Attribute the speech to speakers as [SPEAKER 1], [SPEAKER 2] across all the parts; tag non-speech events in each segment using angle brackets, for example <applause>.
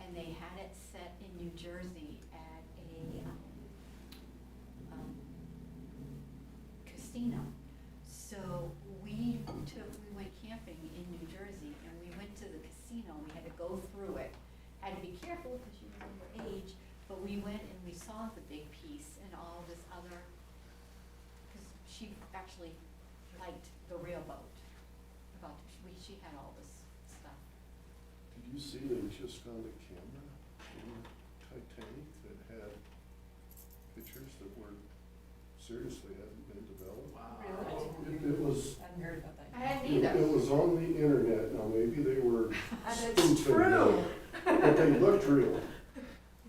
[SPEAKER 1] and they had it set in New Jersey at a, um, um, casino. So we took, we went camping in New Jersey and we went to the casino, we had to go through it. Had to be careful because you were underage, but we went and we saw the big piece and all this other, because she actually liked the railboat. About, we, she had all this stuff.
[SPEAKER 2] Did you see they just found a camera in Titanic that had pictures that were seriously hadn't been developed? It- It was,
[SPEAKER 3] I hadn't heard about that.
[SPEAKER 1] I hadn't
[SPEAKER 2] it
[SPEAKER 1] either.
[SPEAKER 2] it was on the internet, now maybe they were
[SPEAKER 3] And it's
[SPEAKER 2] spoofing it,
[SPEAKER 3] true.
[SPEAKER 2] but they looked real.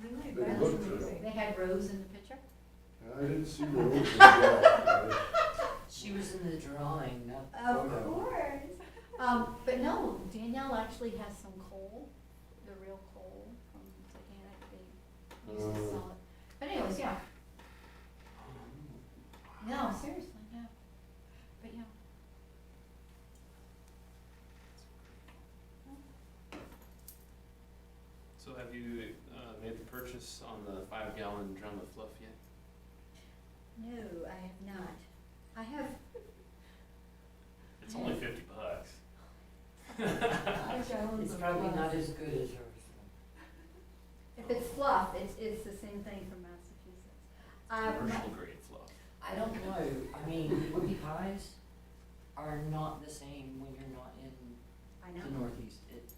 [SPEAKER 3] Really?
[SPEAKER 2] They
[SPEAKER 3] That's
[SPEAKER 2] looked
[SPEAKER 3] amazing.
[SPEAKER 1] They had Rose in the picture?
[SPEAKER 2] I didn't see those. in that,
[SPEAKER 4] She was in the drawing, not the
[SPEAKER 1] Of
[SPEAKER 4] photo.
[SPEAKER 1] course. <laughs> Um, but no, Danielle actually has some coal, the real coal from Titanic, they used to
[SPEAKER 2] Oh.
[SPEAKER 1] sell it. But anyways, yeah, no, seriously, yeah, but yeah.
[SPEAKER 5] So have you uh, made the purchase on the five gallon drum of fluff yet?
[SPEAKER 1] No, I have not. I have,
[SPEAKER 5] It's only fifty bucks.
[SPEAKER 3] I wish
[SPEAKER 1] Oh,
[SPEAKER 3] I owned
[SPEAKER 4] It's
[SPEAKER 3] some
[SPEAKER 4] probably
[SPEAKER 3] of
[SPEAKER 4] not
[SPEAKER 3] those.
[SPEAKER 4] as good as hers.
[SPEAKER 1] if it's fluff, it's, it's the same thing from Massachusetts. Um,
[SPEAKER 5] Commercial grade fluff.
[SPEAKER 4] I don't know, I mean, whoopie pies are not the same when you're not in
[SPEAKER 1] I
[SPEAKER 4] the
[SPEAKER 1] know,
[SPEAKER 4] Northeast. It-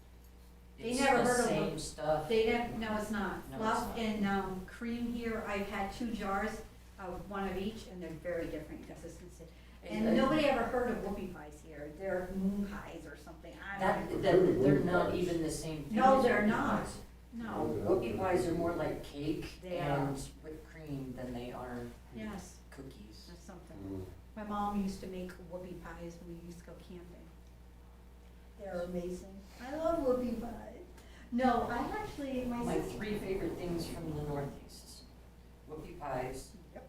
[SPEAKER 1] They never heard of
[SPEAKER 4] It's the
[SPEAKER 1] them.
[SPEAKER 4] same stuff.
[SPEAKER 1] they don't, no, it's not.
[SPEAKER 4] No, it's
[SPEAKER 1] Fluff
[SPEAKER 4] not.
[SPEAKER 1] and, um, cream here, I've had two jars, uh, one of each, and they're very different consistency. And
[SPEAKER 4] It- uh,
[SPEAKER 1] nobody ever heard of whoopie pies here, they're moon pies or something, I
[SPEAKER 4] That,
[SPEAKER 1] don't,
[SPEAKER 4] that, they're not even the same thing.
[SPEAKER 1] No,
[SPEAKER 4] as
[SPEAKER 1] they're
[SPEAKER 4] whoopie
[SPEAKER 1] not.
[SPEAKER 4] pies.
[SPEAKER 1] no,
[SPEAKER 4] Whoopie pies are more like cake
[SPEAKER 1] They are.
[SPEAKER 4] and whipped cream than they are
[SPEAKER 1] yes,
[SPEAKER 4] cookies.
[SPEAKER 1] there's something.
[SPEAKER 2] Mm.
[SPEAKER 1] My mom used to make whoopie pies when we used to go camping. They're amazing, I love whoopie pies. No, I actually, my
[SPEAKER 4] My
[SPEAKER 1] sister.
[SPEAKER 4] three favorite things from the Northeast, whoopie pies,
[SPEAKER 1] Yep.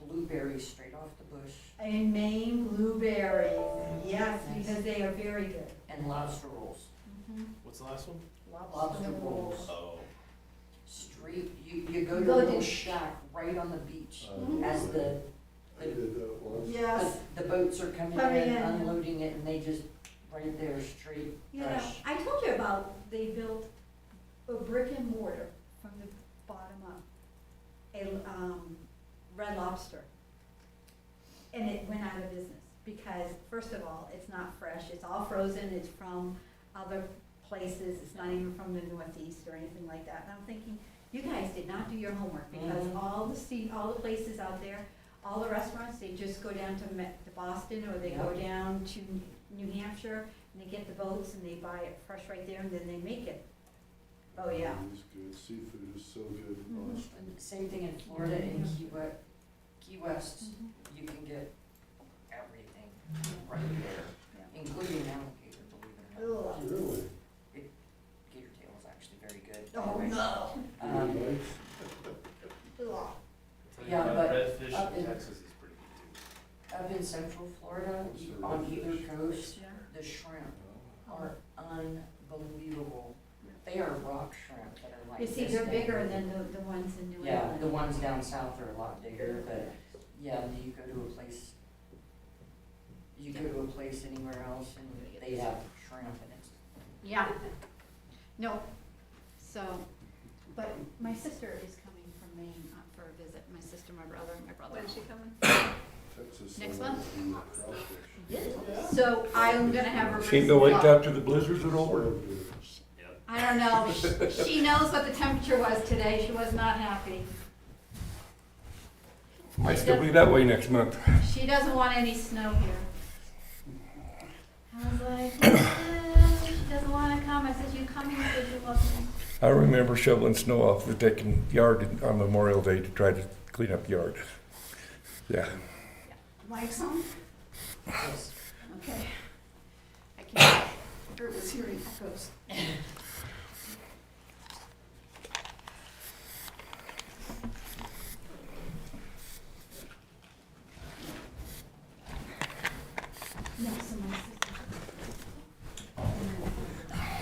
[SPEAKER 4] blueberries straight off the bush,
[SPEAKER 1] And Maine blueberries, yes, because they are very good.
[SPEAKER 4] and lobster rolls.
[SPEAKER 1] Mm-hmm.
[SPEAKER 5] What's the last one?
[SPEAKER 4] Lobster rolls.
[SPEAKER 5] Oh.
[SPEAKER 4] Street, you, you go
[SPEAKER 1] You
[SPEAKER 4] to a
[SPEAKER 1] go
[SPEAKER 4] little
[SPEAKER 1] to-
[SPEAKER 4] shack right on the beach
[SPEAKER 2] Uh,
[SPEAKER 4] Mm-hmm. as the,
[SPEAKER 2] I did that once.
[SPEAKER 1] Yes.
[SPEAKER 4] the boats are coming in
[SPEAKER 1] Coming in.
[SPEAKER 4] and unloading it and they just, right there, straight,
[SPEAKER 1] You know,
[SPEAKER 4] fresh.
[SPEAKER 1] I told you about, they built a brick and mortar from the bottom up, a, um, Red Lobster. And it went out of business, because first of all, it's not fresh, it's all frozen, it's from other places, it's not even from the Northeast or anything like that. And I'm thinking, you guys did not do your homework, because
[SPEAKER 4] Mhm.
[SPEAKER 1] all the sea, all the places out there, all the restaurants, they just go down to Ma- to Boston, or they go
[SPEAKER 4] Yeah.
[SPEAKER 1] down to New Hampshire, and they get the boats and they buy it fresh right there and then they make it. Oh, yeah.
[SPEAKER 2] It's good, seafood is so good in
[SPEAKER 1] Mhm.
[SPEAKER 2] Boston.
[SPEAKER 4] And Same thing in Florida, in
[SPEAKER 1] Mm-hmm.
[SPEAKER 4] Key West, Key West, you can get everything right there, including alligator, believe it or not.
[SPEAKER 1] Ugh.
[SPEAKER 2] Really?
[SPEAKER 4] Gator tail is actually very good.
[SPEAKER 1] Oh,
[SPEAKER 4] Anyway,
[SPEAKER 1] no.
[SPEAKER 4] um,
[SPEAKER 2] Really nice.
[SPEAKER 1] Ugh.
[SPEAKER 5] Tell you
[SPEAKER 4] Yeah,
[SPEAKER 5] what,
[SPEAKER 4] but up
[SPEAKER 5] Redfish
[SPEAKER 4] in-
[SPEAKER 5] in Texas is pretty good too.
[SPEAKER 4] Up in central Florida, you- on either coast, the shrimp
[SPEAKER 5] Oh.
[SPEAKER 4] are unbelievable. They are rock shrimp that are like
[SPEAKER 1] You
[SPEAKER 4] this
[SPEAKER 1] see, they're
[SPEAKER 4] big.
[SPEAKER 1] bigger than the, the ones in New
[SPEAKER 4] Yeah,
[SPEAKER 1] England.
[SPEAKER 4] the ones down south are a lot bigger, but yeah, and you go to a place, you go to a place anywhere else and they have shrimp and it's,
[SPEAKER 1] Yeah. No, so, but my sister is coming from Maine uh, for a visit, my sister, my brother, and my brother. When's she coming?
[SPEAKER 2] Texas.
[SPEAKER 1] Next
[SPEAKER 2] salmon
[SPEAKER 1] month?
[SPEAKER 2] and crawfish.
[SPEAKER 1] So I'm gonna have her.
[SPEAKER 6] She
[SPEAKER 1] bring
[SPEAKER 6] ain't gonna wake
[SPEAKER 1] some
[SPEAKER 6] after the blizzard's
[SPEAKER 2] So
[SPEAKER 6] are over.
[SPEAKER 2] good.
[SPEAKER 5] Yep.
[SPEAKER 1] I don't know, She- she knows what the temperature was today, she was not happy.
[SPEAKER 6] Might still be that way next month.
[SPEAKER 1] She doesn't want any snow here. I was like, <coughs> "Eh, she doesn't want to come. I said, you coming? She said, you welcome.
[SPEAKER 6] I remember shoveling snow off the Dickin yard on Memorial Day to try to clean up the yard. Yeah.
[SPEAKER 1] Mike's on?
[SPEAKER 4] it's
[SPEAKER 1] Okay. I can't. Kurt was hearing echoes.